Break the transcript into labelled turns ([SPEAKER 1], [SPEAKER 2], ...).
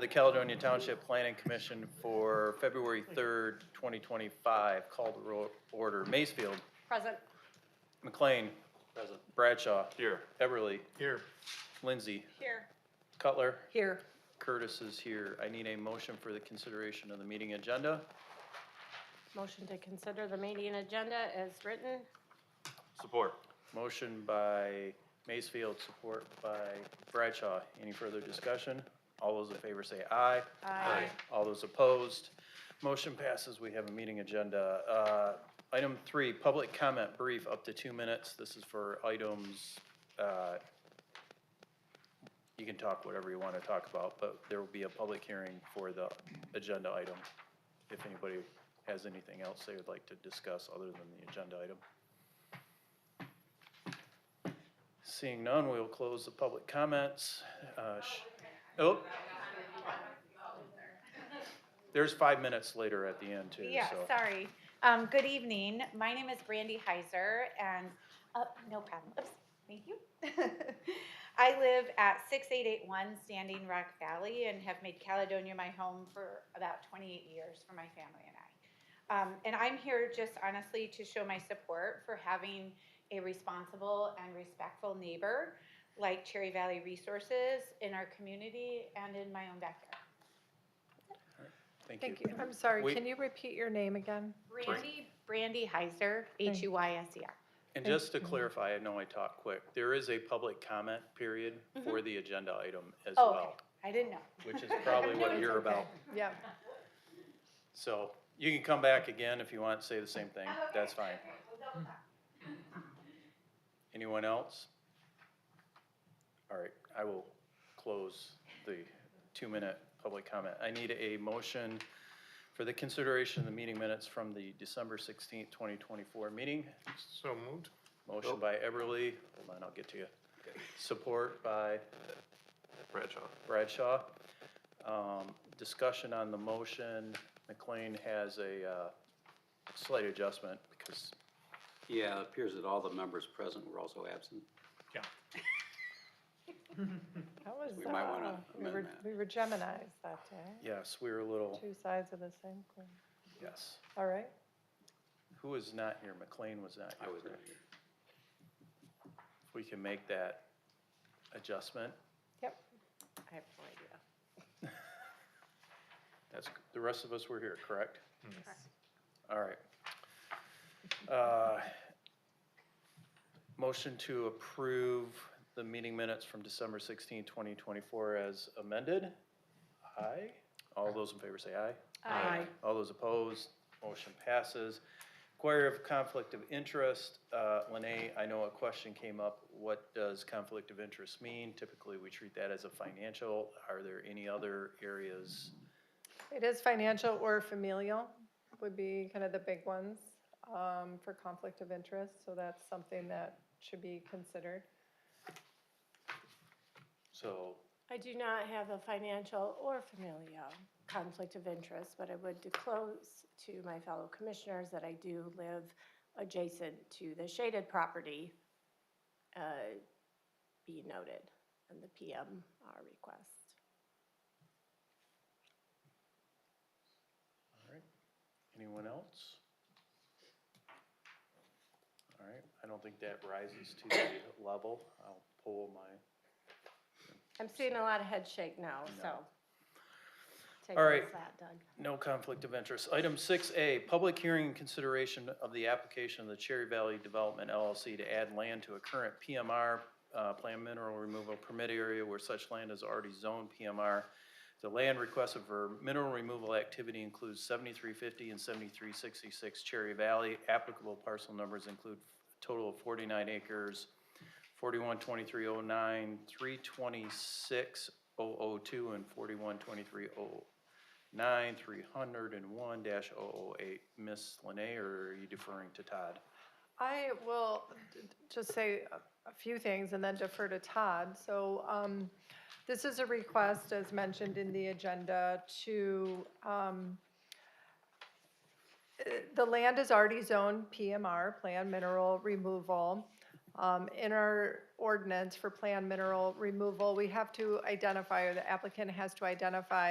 [SPEAKER 1] the Caledonia Township Planning Commission for February 3rd, 2025. Call the ro- order. Macefield,
[SPEAKER 2] Present.
[SPEAKER 1] McLean,
[SPEAKER 3] Present.
[SPEAKER 1] Bradshaw,
[SPEAKER 3] Here.
[SPEAKER 1] Everly,
[SPEAKER 3] Here.
[SPEAKER 1] Lindsay,
[SPEAKER 2] Here.
[SPEAKER 1] Cutler,
[SPEAKER 2] Here.
[SPEAKER 1] Curtis is here. I need a motion for the consideration of the meeting agenda.
[SPEAKER 2] Motion to consider the meeting agenda as written.
[SPEAKER 3] Support.
[SPEAKER 1] Motion by Macefield, support by Bradshaw. Any further discussion? All those in favor say aye.
[SPEAKER 3] Aye.
[SPEAKER 1] All those opposed? Motion passes. We have a meeting agenda. Uh, Item three, public comment brief, up to two minutes. This is for items, uh, you can talk whatever you want to talk about, but there will be a public hearing for the agenda item if anybody has anything else they would like to discuss other than the agenda item. Seeing none, we will close the public comments. Uh, sh- Oh. There's five minutes later at the end too,
[SPEAKER 4] Yeah,
[SPEAKER 1] so.
[SPEAKER 4] sorry. Um, good evening. My name is Brandy Heiser and, uh, no problem. Oops, thank you. I live at six eight eight one Standing Rock Valley and have made Caledonia my home for about twenty-eight years for my family and I. Um, and I'm here just honestly to show my support for having a responsible and respectful neighbor like Cherry Valley Resources in our community and in my own backyard.
[SPEAKER 1] Thank
[SPEAKER 5] Thank
[SPEAKER 1] you.
[SPEAKER 5] you. I'm sorry,
[SPEAKER 1] We-
[SPEAKER 5] can you repeat your name again?
[SPEAKER 4] Brandy, Brandy Heiser,
[SPEAKER 5] Thank-
[SPEAKER 4] H U Y S E R.
[SPEAKER 1] And
[SPEAKER 5] Thank
[SPEAKER 1] just to clarify, I know I talk quick, there is a public comment period
[SPEAKER 5] Mm-hmm.
[SPEAKER 1] for the agenda item as
[SPEAKER 4] Oh,
[SPEAKER 1] well,
[SPEAKER 4] I didn't know.
[SPEAKER 1] which is probably what you're about.
[SPEAKER 5] Yeah,
[SPEAKER 1] So you can come back again if you want, say the same thing, that's fine. Anyone else? All right, I will close the two-minute public comment. I need a motion for the consideration of the meeting minutes from the December sixteenth, twenty twenty-four meeting.
[SPEAKER 3] So moved.
[SPEAKER 1] Motion by Everly, hold on, I'll get to you. Support by
[SPEAKER 3] Bradshaw.
[SPEAKER 1] Bradshaw. Um, Discussion on the motion, McLean has a uh, slight adjustment because,
[SPEAKER 6] Yeah, it appears that all the members present were also absent.
[SPEAKER 5] that was,
[SPEAKER 6] We might wanna
[SPEAKER 5] uh, we were,
[SPEAKER 6] amend that.
[SPEAKER 5] we were Geminis that day,
[SPEAKER 1] yes, we were a little,
[SPEAKER 5] two sides of the same coin.
[SPEAKER 1] yes.
[SPEAKER 5] All right,
[SPEAKER 1] Who was not here? McLean was not
[SPEAKER 6] I
[SPEAKER 1] here.
[SPEAKER 6] was not
[SPEAKER 1] correct?
[SPEAKER 6] here.
[SPEAKER 1] If we can make that adjustment,
[SPEAKER 5] yep,
[SPEAKER 2] I have no idea.
[SPEAKER 1] that's, the rest of us were here, correct? All right. Uh, Motion to approve the meeting minutes from December 16, 2024 as amended. Aye. All those in favor say aye.
[SPEAKER 3] Aye.
[SPEAKER 1] All those opposed, motion passes. Inquiry of conflict of interest, Uh, Lene, I know a question came up, what does conflict of interest mean? Typically, we treat that as a financial, are there any other areas?
[SPEAKER 5] it is financial or familial would be kind of the big ones, um, for conflict of interest, so that's something that should be considered.
[SPEAKER 1] So,
[SPEAKER 2] I do not have a financial or familial conflict of interest, but I would disclose to my fellow commissioners that I do live adjacent to the shaded property. uh, Be noted in the PMR request.
[SPEAKER 1] all right, anyone else? All right, I don't think that rises to the level, I'll pull my
[SPEAKER 2] I'm seeing a lot of head shake now, so.
[SPEAKER 1] No.
[SPEAKER 2] Take
[SPEAKER 1] All
[SPEAKER 2] it
[SPEAKER 1] right.
[SPEAKER 2] as that, Doug.
[SPEAKER 1] No conflict of interest. Item six A, public hearing and consideration of the application of the Cherry Valley Development LLC to add land to a current PMR, uh, Plan Mineral Removal Permit Area where such land is already zoned PMR. The land requested for mineral removal activity includes seventy-three fifty and seventy-three sixty-six Cherry Valley. Applicable parcel numbers include a total of forty-nine acres, forty-one twenty-three oh nine, three twenty-six oh oh two, and forty-one twenty-three oh nine three hundred and one dash oh oh eight. Miss Lene, or are you deferring to Todd?
[SPEAKER 5] I will d- d- just say a- a few things and then defer to Todd. So um, this is a request, as mentioned in the agenda, to, um, eh, the land is already zoned PMR, Plan Mineral Removal. Um, In our ordinance for Plan Mineral Removal, we have to identify, or the applicant has to identify